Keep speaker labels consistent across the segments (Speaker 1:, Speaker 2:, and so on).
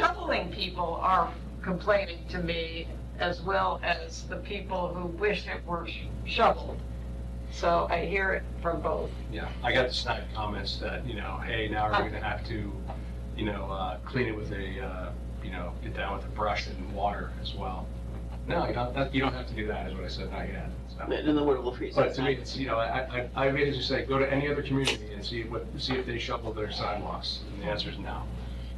Speaker 1: shoveling people are complaining to me as well as the people who wish it were sh- shoveled. So I hear it from both.
Speaker 2: Yeah, I got the snide comments that, you know, hey, now we're gonna have to, you know, uh, clean it with a, uh, you know, get down with a brush and water as well. No, you don't, that, you don't have to do that, is what I said, not yet. so.
Speaker 3: And then what will freeze.
Speaker 2: But to me, it's, you know, I, I, I basically say, go to any other community and see what, see if they shovel their sidewalks, and the answer is no.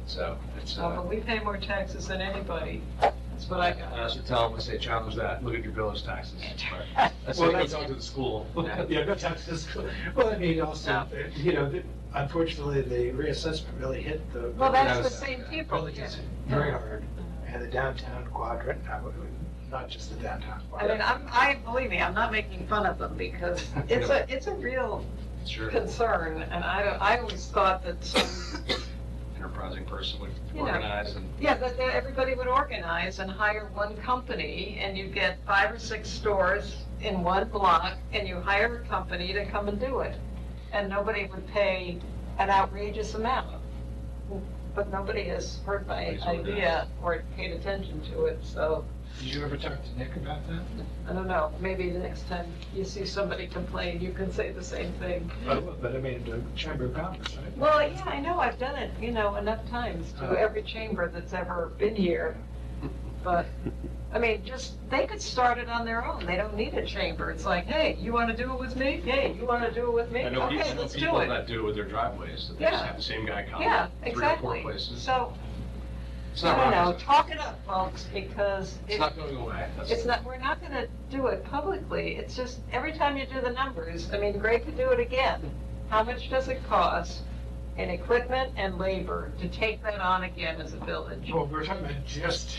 Speaker 2: So, it's,
Speaker 1: So,
Speaker 2: uh,
Speaker 1: but we pay more taxes than anybody. That's what I
Speaker 2: I
Speaker 1: got.
Speaker 2: I also tell them, I say, challenge that, look at your bill as taxes. I say, go
Speaker 4: Well, that's-
Speaker 2: talk to the school.
Speaker 4: Yeah, no taxes. Well, I mean, also, you know, the- unfortunately, the reassessment really hit the.
Speaker 1: Well, that's the
Speaker 2: was-
Speaker 1: same people.
Speaker 4: Villages
Speaker 1: yeah.
Speaker 4: very hard, and the downtown quadrant, not- not just the downtown
Speaker 1: I mean,
Speaker 4: quadrant.
Speaker 1: I'm, I, believe me, I'm not making fun of them because it's a, it's a real
Speaker 2: Sure,
Speaker 1: concern. And I don't, I always thought that some,
Speaker 2: enterprising person would
Speaker 1: You know.
Speaker 2: organize and
Speaker 1: yeah, that, that everybody would organize and hire one company and you get five or six stores in one block and you hire a company to come and do it. And nobody would pay an outrageous amount. But nobody has heard my
Speaker 2: Nobody's heard that.
Speaker 1: idea or paid attention to it, so.
Speaker 4: Did you ever talk to Nick about that?
Speaker 1: I don't know, maybe the next time you see somebody complain, you can say the same thing.
Speaker 4: But but I mean, the Chamber of Commerce, right?
Speaker 1: Well, yeah, I know, I've done it, you know, enough times
Speaker 2: Uh-huh.
Speaker 1: to every chamber that's ever been here. But, I mean, just, they could start it on their own, they don't need a chamber. It's like, hey, you want to do it with me? Hey, you want to do it with me?
Speaker 2: I know people, I
Speaker 1: Okay,
Speaker 2: know
Speaker 1: let's do
Speaker 2: people
Speaker 1: it.
Speaker 2: that do it with their driveways, that they just
Speaker 1: Yeah.
Speaker 2: have the same guy come.
Speaker 1: Yeah,
Speaker 2: Three or
Speaker 1: exactly.
Speaker 2: four places.
Speaker 1: So,
Speaker 2: It's not
Speaker 1: I don't know,
Speaker 2: rocket science.
Speaker 1: talk it up, folks, because
Speaker 2: It's
Speaker 1: it,
Speaker 2: not going away. That's-
Speaker 1: It's not, we're not gonna do it publicly, it's just, every time you do the numbers, I mean, great to do it again. How much does it cost in equipment and labor to take that on again as a village?
Speaker 4: Well, we're talking about just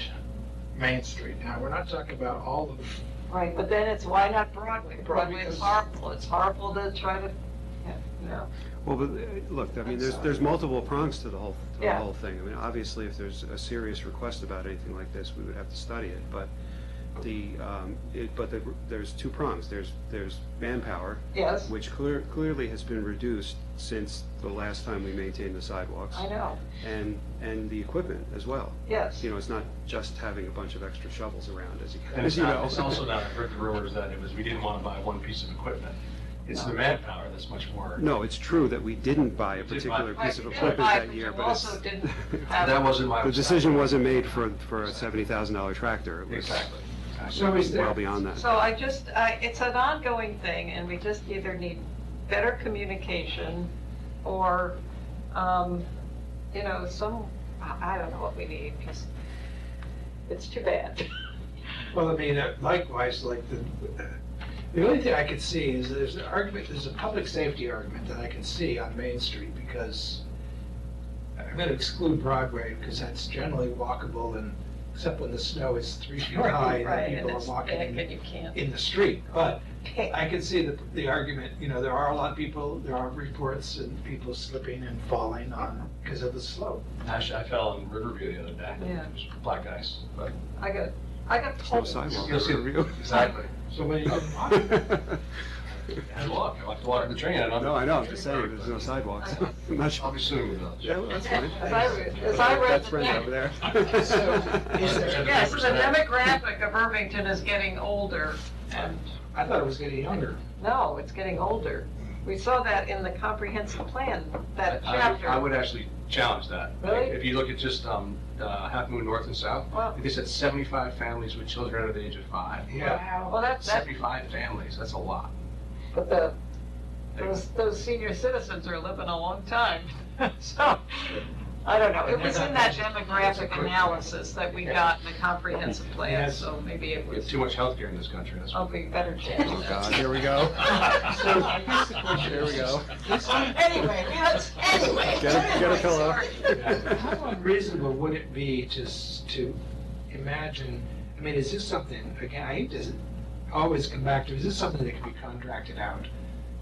Speaker 4: Main Street now. We're not talking about all of
Speaker 1: Right, but then it's, why not Broadway? Broadway is
Speaker 4: Because-
Speaker 1: horrible, it's horrible to try to, no.
Speaker 5: Well, but, uh, look, I
Speaker 4: I'm
Speaker 5: mean, there's,
Speaker 4: sorry.
Speaker 5: there's multiple prongs to the whole, to the
Speaker 1: Yeah.
Speaker 5: whole thing. I mean, obviously, if there's a serious request about anything like this, we would have to study it, but the, um, it, but the- there's two prongs. There's, there's manpower,
Speaker 1: Yes,
Speaker 5: which clear, clearly has been reduced since the last time we maintained the sidewalks.
Speaker 1: I know,
Speaker 5: And, and the equipment as well.
Speaker 1: yes.
Speaker 5: You know, it's not just having a bunch of extra shovels around, as you,
Speaker 2: And it's
Speaker 5: as you
Speaker 2: not,
Speaker 5: know.
Speaker 2: it's also not, I've heard the rumors that it was, we didn't want to buy one piece of equipment. It's the manpower that's much more,
Speaker 5: No, it's true that we didn't buy
Speaker 2: We
Speaker 5: a
Speaker 2: did buy-
Speaker 5: particular
Speaker 1: Right,
Speaker 5: piece of
Speaker 1: you did
Speaker 5: equipment
Speaker 1: buy,
Speaker 5: that
Speaker 1: but
Speaker 5: year,
Speaker 1: you
Speaker 5: but it's.
Speaker 1: also didn't have-
Speaker 2: that wasn't my.
Speaker 5: The decision wasn't made for, for a seventy thousand dollar tractor. It was
Speaker 2: Exactly.
Speaker 4: So is there-
Speaker 5: Well beyond that.
Speaker 1: So I just, I, it's an ongoing thing, and we just either need better communication or, um, you know, some, I I don't know what we need, because it's too bad.
Speaker 4: Well, I mean, uh, likewise, like the, the only thing I could see is there's an argument, there's a public safety argument that I can see on Main Street because I'm gonna exclude Broadway because that's generally walkable and, except when the snow is three feet high and
Speaker 1: Right,
Speaker 4: then
Speaker 1: and
Speaker 4: people
Speaker 1: it's
Speaker 4: are walking
Speaker 1: thick, and
Speaker 4: in,
Speaker 1: you can't
Speaker 4: in the street. But
Speaker 1: pick.
Speaker 4: I can see the, the argument, you know, there are a lot of people, there are reports and people slipping and falling on, because of the slope.
Speaker 2: Actually, I fell in Riverview the other day.
Speaker 1: Yeah.
Speaker 2: It was black ice, but.
Speaker 1: I got, I got
Speaker 5: There's no
Speaker 1: pulled.
Speaker 5: sidewalk
Speaker 2: You'll see-
Speaker 5: in Riverview.
Speaker 2: Exactly.
Speaker 4: So when you,
Speaker 5: No,
Speaker 2: I walk, I like to walk in the train, I don't.
Speaker 5: I know, I'm just saying, there's no sidewalks. I'm not sure.
Speaker 2: I'll be suing with those.
Speaker 5: Yeah, well, that's fine.
Speaker 1: As I read- as I read
Speaker 5: That's
Speaker 1: the
Speaker 5: Brenda
Speaker 1: thing.
Speaker 5: over there.
Speaker 4: So, is there-
Speaker 1: Yes, the demographic of Irvington is getting older, and,
Speaker 4: I thought it was getting younger.
Speaker 1: no, it's getting older. We saw that in the comprehensive plan, that
Speaker 2: I- I would-
Speaker 1: chapter.
Speaker 2: I would actually challenge that.
Speaker 1: Really?
Speaker 2: If you look at just um, uh, Half Moon North and South,
Speaker 1: Wow.
Speaker 2: they said 75 families with children under the age of five.
Speaker 1: Well, that's, that's
Speaker 2: 75 families, that's a lot.
Speaker 1: But the, those, those senior citizens are living a long time, so, I don't know. It was in that demographic analysis that we got in the comprehensive plan, so maybe it
Speaker 2: We have
Speaker 1: was,
Speaker 2: too much healthcare in this country, that's.
Speaker 1: I'll be better chance.
Speaker 5: Oh, God, here we go.
Speaker 4: So I guess the question
Speaker 5: Here we go.
Speaker 1: Anyway, let's, anyway.
Speaker 5: Get a, get a
Speaker 1: anyway,
Speaker 5: pillow.
Speaker 1: sorry.
Speaker 4: How unreasonable would it be to, s- to imagine, I mean, is this something, again, I hate to always come back to, is this something that can be contracted out?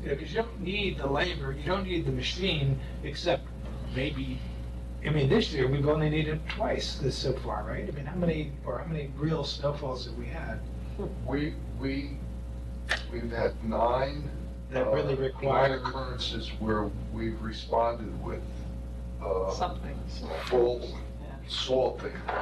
Speaker 4: You know, because you don't need the labor, you don't need the machine, except maybe, I mean, this year, we've only needed twice this so far, right? I mean, how many, or how many real snowfalls have we had
Speaker 6: We, we, we've had nine.
Speaker 4: that
Speaker 6: uh,
Speaker 4: really
Speaker 6: Nine
Speaker 4: require?
Speaker 6: occurrences where we've responded with, uh,
Speaker 1: Something,
Speaker 6: full
Speaker 2: salting.